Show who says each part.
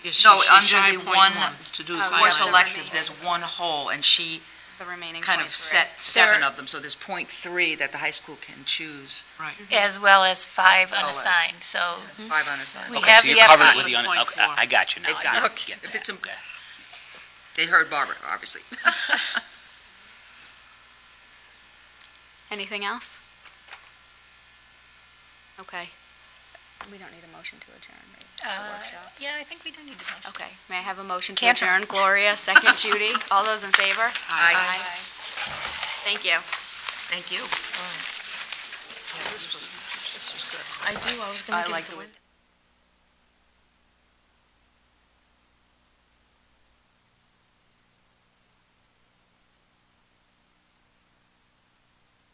Speaker 1: Yes, she-
Speaker 2: No,
Speaker 1: she-
Speaker 2: under
Speaker 1: shy
Speaker 2: the
Speaker 1: point
Speaker 2: one,
Speaker 1: To do
Speaker 3: uh,
Speaker 1: the
Speaker 3: Sorry,
Speaker 2: For
Speaker 1: science.
Speaker 3: I'm not
Speaker 2: electives,
Speaker 3: reading.
Speaker 2: there's one hole, and she
Speaker 3: the remaining
Speaker 2: kind of
Speaker 3: points, right?
Speaker 2: set seven
Speaker 4: There-
Speaker 2: of them, so there's point three that the high school can choose.
Speaker 4: as well as five
Speaker 2: As well as.
Speaker 4: unassigned, so
Speaker 2: It's five unassigned.
Speaker 4: We
Speaker 5: Okay,
Speaker 4: have
Speaker 5: so you
Speaker 4: the
Speaker 5: covered
Speaker 4: FTE.
Speaker 5: with the, un-
Speaker 1: Point
Speaker 5: okay,
Speaker 1: four.
Speaker 5: I I got you now.
Speaker 2: They've
Speaker 5: I
Speaker 2: got it.
Speaker 5: get
Speaker 2: If
Speaker 5: that,
Speaker 2: it's im-
Speaker 5: okay.
Speaker 2: They heard Barbara, obviously.
Speaker 3: Anything else? Okay. We don't need a motion to adjourn, right?
Speaker 4: Uh,
Speaker 3: The workshop.
Speaker 4: Yeah, I think we do need to motion.
Speaker 3: Okay, may I have a motion to
Speaker 4: Cantor.
Speaker 3: adjourn? Gloria, second Judy, all those in favor?
Speaker 2: Aye.
Speaker 3: Thank you.
Speaker 2: Thank you.
Speaker 1: Yeah, this was, this was good.
Speaker 6: I do, I was
Speaker 2: I
Speaker 6: gonna give
Speaker 2: like
Speaker 6: it to
Speaker 2: the way-
Speaker 6: Wendy.